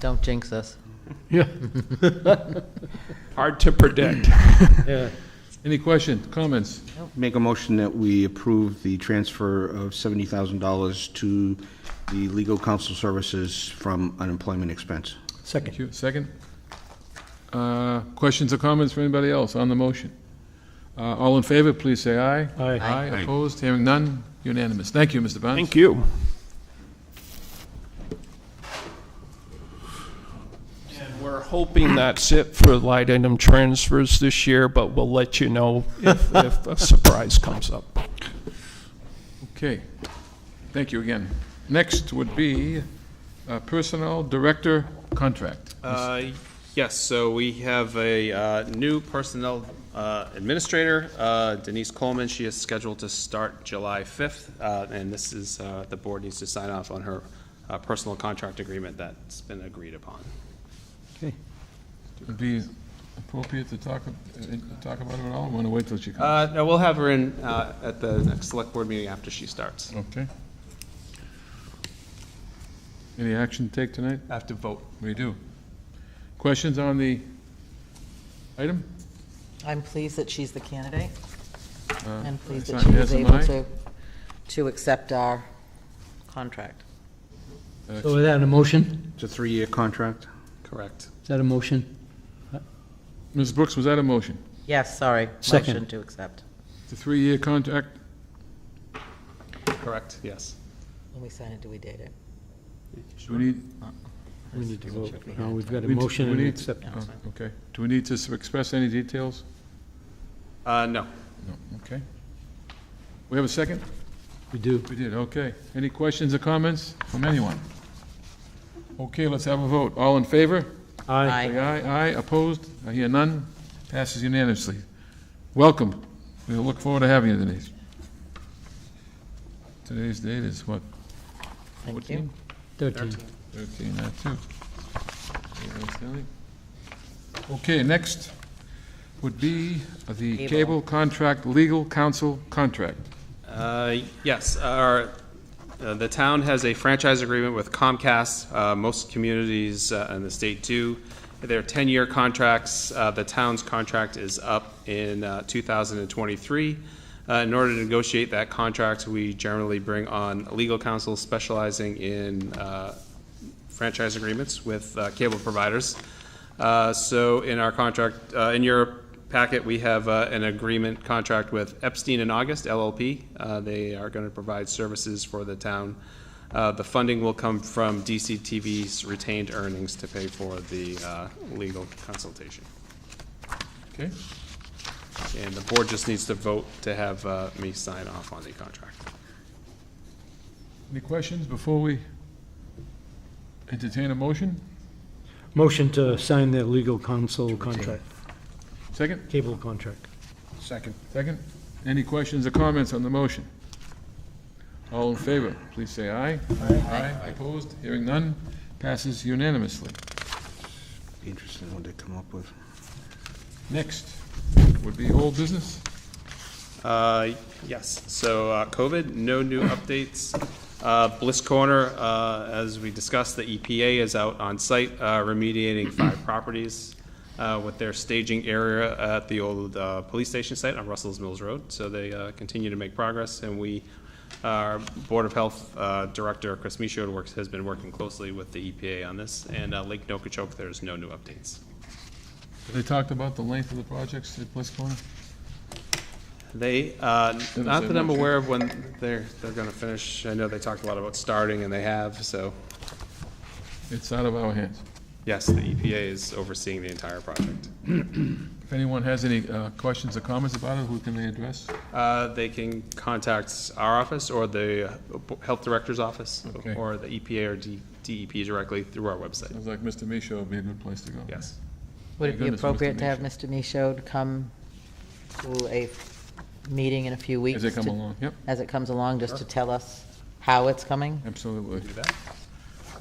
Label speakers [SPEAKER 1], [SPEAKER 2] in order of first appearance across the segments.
[SPEAKER 1] Don't jinx us.
[SPEAKER 2] Yeah.
[SPEAKER 3] Hard to predict.
[SPEAKER 2] Yeah. Any questions, comments?
[SPEAKER 4] Make a motion that we approve the transfer of $70,000 to the legal counsel services from unemployment expense.
[SPEAKER 2] Thank you. Second? Uh, Questions or comments from anybody else on the motion? Uh, All in favor, please say aye. Aye. Aye, opposed, hearing none, unanimous. Thank you, Mr. Barnes.
[SPEAKER 3] Thank you. And we're hoping that's it for light item transfers this year, but we'll let you know if, if a surprise comes up.
[SPEAKER 2] Okay, thank you again. Next would be uh, Personnel Director Contract.
[SPEAKER 5] Uh, Yes, so we have a uh, new personnel uh, administrator, uh, Denise Coleman. She is scheduled to start July 5th, uh, and this is, uh, the board needs to sign off on her uh, personal contract agreement that's been agreed upon.
[SPEAKER 2] Would be appropriate to talk, uh, talk about it at all, or want to wait till she comes?
[SPEAKER 5] Uh, No, we'll have her in uh, at the next select board meeting after she starts.
[SPEAKER 2] Okay. Any action to take tonight?
[SPEAKER 5] Have to vote.
[SPEAKER 2] We do. Questions on the item?
[SPEAKER 1] I'm pleased that she's the candidate
[SPEAKER 2] Uh,
[SPEAKER 1] and pleased that
[SPEAKER 2] it's
[SPEAKER 1] she
[SPEAKER 2] not-
[SPEAKER 1] was
[SPEAKER 2] yes, am
[SPEAKER 1] able
[SPEAKER 2] I?
[SPEAKER 1] to, to accept our contract.
[SPEAKER 6] So is that a motion?
[SPEAKER 4] It's a three-year contract.
[SPEAKER 5] Correct.
[SPEAKER 6] Is that a motion?
[SPEAKER 2] Ms. Brooks, was that a motion?
[SPEAKER 1] Yes, sorry.
[SPEAKER 6] Second.
[SPEAKER 1] Motion to accept.
[SPEAKER 2] The three-year contract,
[SPEAKER 5] Correct, yes.
[SPEAKER 1] When we sign it, do we date it?
[SPEAKER 2] do we need?
[SPEAKER 6] We need to vote.
[SPEAKER 1] Check we
[SPEAKER 6] No,
[SPEAKER 1] have.
[SPEAKER 6] we've got a
[SPEAKER 2] we-
[SPEAKER 6] motion
[SPEAKER 2] we
[SPEAKER 6] and an
[SPEAKER 2] need-
[SPEAKER 6] acceptance.
[SPEAKER 2] oh, Okay. Do we need to s- express any details?
[SPEAKER 5] Uh, No.
[SPEAKER 2] No, okay. We have a second?
[SPEAKER 6] We do.
[SPEAKER 2] We did, okay. Any questions or comments from anyone? Okay, let's have a vote. All in favor?
[SPEAKER 1] Aye.
[SPEAKER 2] Say aye, aye, opposed? I hear none. Passes unanimously. Welcome. We look forward to having you, Denise. Today's date is what,
[SPEAKER 1] Thank
[SPEAKER 2] 14?
[SPEAKER 1] you.
[SPEAKER 6] 13.
[SPEAKER 2] 13, that too. Okay, that's done. Okay, next would be the
[SPEAKER 1] Cable.
[SPEAKER 2] cable contract, legal counsel contract.
[SPEAKER 5] Uh, Yes, our, uh, the town has a franchise agreement with Comcast. Uh, Most communities uh, in the state do. They're 10-year contracts. Uh, The town's contract is up in uh, 2023. Uh, In order to negotiate that contract, we generally bring on legal counsel specializing in uh, franchise agreements with uh, cable providers. Uh, So in our contract, uh, in your packet, we have uh, an agreement contract with Epstein and August LLP. Uh, They are going to provide services for the town. Uh, The funding will come from DCTV's retained earnings to pay for the uh, legal consultation.
[SPEAKER 2] Okay?
[SPEAKER 5] And the board just needs to vote to have uh, me sign off on the contract.
[SPEAKER 2] Any questions before we entertain a motion?
[SPEAKER 6] Motion to sign the legal counsel contract,
[SPEAKER 2] Second?
[SPEAKER 6] cable contract.
[SPEAKER 4] Second.
[SPEAKER 2] Second? Any questions or comments on the motion? All in favor, please say aye. Aye. Aye, opposed? Hearing none, passes unanimously.
[SPEAKER 4] Be interested in what they come up with.
[SPEAKER 2] Next would be old business.
[SPEAKER 5] Uh, Yes, so uh, COVID, no new updates. Uh, Bliss Corner, uh, as we discussed, the EPA is out on site uh, remediating five properties uh, with their staging area at the old uh, police station site on Russell's Mills Road. So they uh, continue to make progress, and we, our Board of Health uh, Director, Chris Michaud, works, has been working closely with the EPA on this. And uh, Lake Nokichoke, there's no new updates.
[SPEAKER 2] They talked about the length of the projects at Bliss Corner?
[SPEAKER 5] They, uh,
[SPEAKER 2] Didn't
[SPEAKER 5] not
[SPEAKER 2] say
[SPEAKER 5] that I'm
[SPEAKER 2] much.
[SPEAKER 5] aware of when they're, they're going to finish. I know they talked a lot about starting, and they have, so,
[SPEAKER 2] It's out of our hands.
[SPEAKER 5] yes, the EPA is overseeing the entire project.
[SPEAKER 2] If anyone has any uh, questions or comments about it, who can they address?
[SPEAKER 5] Uh, They can contact our office, or the uh, Health Director's Office,
[SPEAKER 2] Okay.
[SPEAKER 5] or the EPA or D- DEP directly through our website,
[SPEAKER 2] Sounds like Mr. Michaud would be a good place to go.
[SPEAKER 5] yes.
[SPEAKER 1] Would it be
[SPEAKER 2] goodness, Mr.
[SPEAKER 1] appropriate to have Mr. Michaud come to a meeting in a few weeks?
[SPEAKER 2] As they come
[SPEAKER 1] to-
[SPEAKER 2] along, yep,
[SPEAKER 1] As it comes along, just to tell us how it's coming?
[SPEAKER 2] absolutely.
[SPEAKER 5] Do that.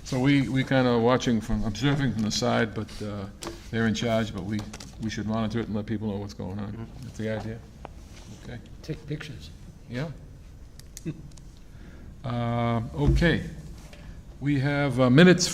[SPEAKER 2] So we, we kind of watching from, observing from the side, but uh, they're in charge, but we, we should monitor it and let people know what's going
[SPEAKER 5] Mm-hmm.
[SPEAKER 2] on. That's the idea. Okay,
[SPEAKER 6] Take pictures.
[SPEAKER 2] yeah. Um, Okay. We have uh, minutes